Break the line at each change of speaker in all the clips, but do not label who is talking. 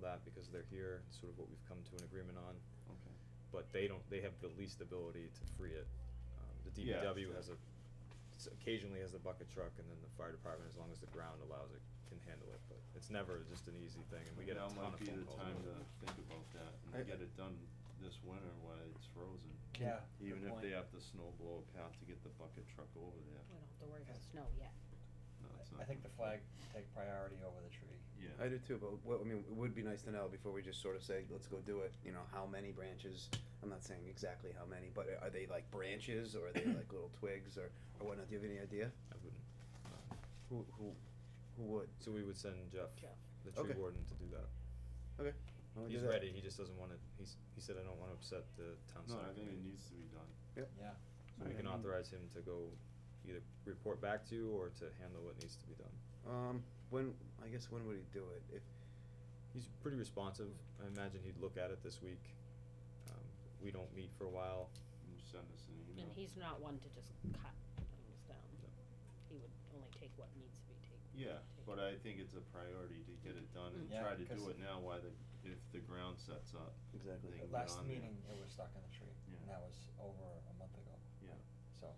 they're here, it's sort of what we've come to an agreement on,
Okay.
but they don't, they have the least ability to free it. Um, the
Yeah,
DPW
so-
has a, s- occasionally has the bucket truck, and then the fire department, as long as the ground allows it, can handle it, but it's never just an easy thing, and we get a ton of phone calls.
Now might be the time to
about it.
think about that
I-
and get it done this winter while it's frozen.
Yeah, good
Even if
point.
they have to snow blow a path to get the bucket truck over there.
We don't have to worry about
Yes.
snow yet.
No, it's
I-
not.
I think the flag take priority over the tree.
Yeah.
I
I do too, but what, I mean, it would be nice to know before we just sort of say, let's go do it, you know, how many branches? I'm not saying exactly how many, but are they like branches or are they like little twigs or, or whatnot? Do you have any idea?
I wouldn't, um,
Who, who, who would?
so we would send Jeff,
Jeff.
the tree
Okay.
warden, to do that.
Okay. I'll do
He's
that.
ready, he just doesn't wanna, he's, he said, I don't wanna upset the town
No,
center
I think it
committee."
needs to be done.
Yeah,
So we can
Alright.
authorize him to go either report back to you or to handle what needs to be done.
Um, when, I guess when would he do it? If,
He's pretty responsive, I imagine he'd look at it this week. Um, we don't meet for a while,
You Send us an email.
And he's not one to just cut things down. He would only take what needs to be taken.
Yeah, but I think it's a priority to get it done and
Mm. Yeah,
try to do
'cause-
it now while the, if the ground sets up.
exactly.
They
The
can get
last
on there.
meeting, it was stuck in the tree,
Yeah.
and that was over a month ago,
Yeah.
so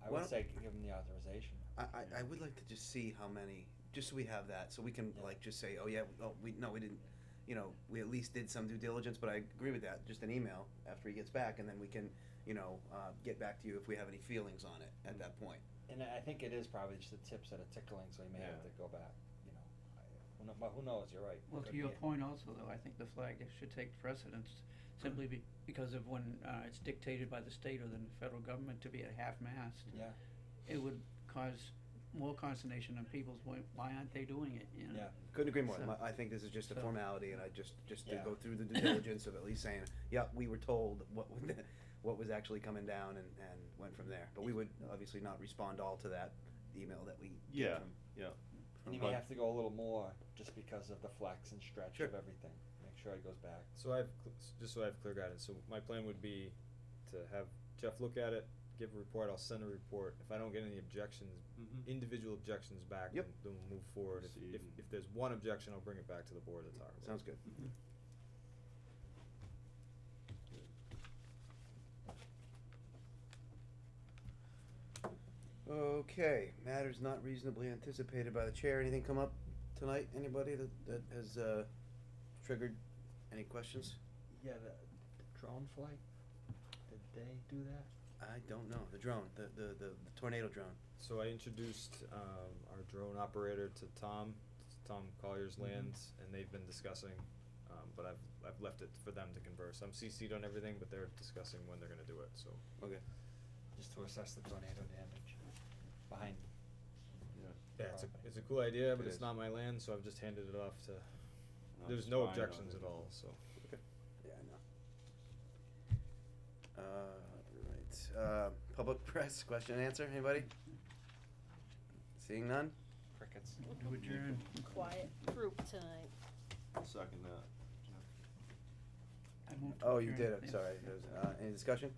I
Why
would
don't-
say give him the authorization.
I, I, I would like to just see how many, just so we have that, so we can
Yeah.
like just say, oh yeah, oh, we, no, we didn't, you know, we at least did some due diligence, but I agree with that, just an email after he gets back, and then we can, you know, uh, get back to you if we have any feelings on it at that point.
And I I think it is probably just the tips that are tickling, so he may have
Yeah.
to go back, you know, I, who kno- but who knows, you're right.
Well, to
Could
your
be.
point also, though, I think the flag should take precedence simply be, because of when, uh, it's dictated by the state or the federal government to be at half-mast.
Yeah,
It would cause more consternation on people's, why, why aren't they doing it, you know?
yeah,
Couldn't agree more.
So-
My- I think this is just a
so-
formality, and I just, just to
Yeah.
go through the due diligence of at least saying, yeah, we were told what, would- what was actually coming down and, and went from there. But we would obviously not respond all to that email that we
Yeah,
get from.
yeah.
and he may
But-
have to go a little more, just because of the flex and stretch
Sure.
of everything, make sure he goes back.
So I have, cl- s- just so I have clear guidance, so my plan would be to have Jeff look at it, give a report, I'll send a report, if I don't get any objections,
Mhm.
individual objections back, then,
Hmm. Yep.
then we'll move forward, if, if,
Proceed.
if there's one objection, I'll bring it back to the board to talk about.
Sounds good.
Mhm.
Okay, matters not reasonably anticipated by the chair. Anything come up tonight? Anybody that, that has, uh, triggered any questions?
Yeah, the drone flight, did they do that?
I don't know. The drone, the, the, the the tornado drone.
So I introduced um, our drone operator to Tom, Tom Collier's
Mhm.
Lands, and they've been discussing, um, but I've, I've left it for them to converse. I'm CC'd on everything, but they're discussing when they're gonna do it, so.
Okay.
Just to assess the tornado damage behind
Yeah.
Yeah, it's a,
Property.
it's a cool idea, but
It
it's
is.
not my land, so I've just handed it off to,
I'll
there's
just
no
find out
objections
if
at
it-
all, so.
Yeah, I know. Uh, right, uh, public press, question and answer, anybody? Seeing none?
crickets.
To adjourn.
Quiet group tonight.
I'll Second that. Yeah.
I move to
Oh, you did,
adjourn.
I'm
Yes.
sorry, There's, uh, any discussion?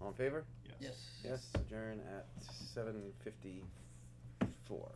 All in favor?
Yes.
Yes.
Yes, adjourn at seven fifty-four.